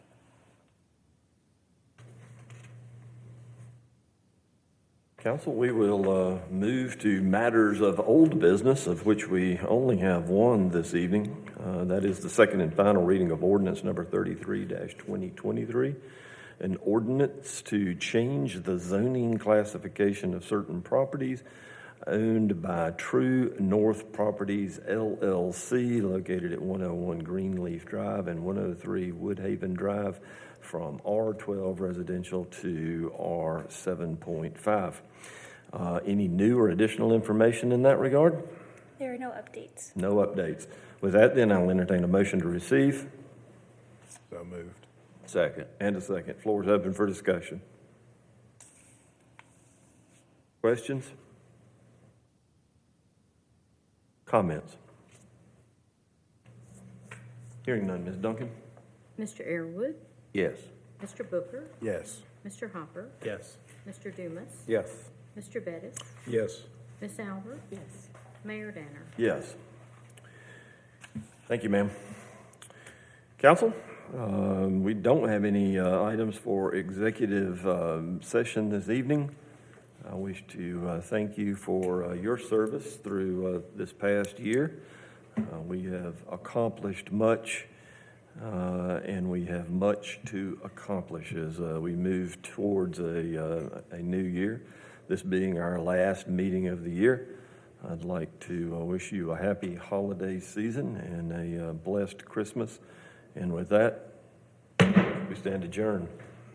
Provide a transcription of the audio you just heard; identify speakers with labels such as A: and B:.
A: Council, we will uh, move to matters of old business, of which we only have one this evening. Uh, That is the second and final reading of ordinance number 33-2023, an ordinance to change the zoning classification of certain properties owned by True North Properties LLC located at 101 Greenleaf Drive and 103 Woodhaven Drive from R12 residential to R7.5. Uh, Any new or additional information in that regard?
B: There are no updates.
A: No updates. With that, then, I'll entertain a motion to receive
C: So moved.
D: Second.
A: and a second. Floor is open for discussion. Questions? Comments? Hearing none, Ms. Duncan?
E: Mr. Airwood,
D: Yes.
E: Mr. Booker,
C: Yes.
E: Mr. Hopper,
C: Yes.
E: Mr. Dumas,
D: Yes.
E: Mr. Bettis,
C: Yes.
E: Miss Albert. Yes. Mayor Danner.
A: Yes. Thank you, ma'am. Council, um, we don't have any uh, items for executive um, session this evening. I wish to uh, thank you for uh, your service through uh, this past year. Uh, We have accomplished much, uh, and we have much to accomplish as uh, we move towards a uh, a new year, this being our last meeting of the year. I'd like to uh, wish you a happy holiday season and a uh, blessed Christmas. And with that, we stand adjourned.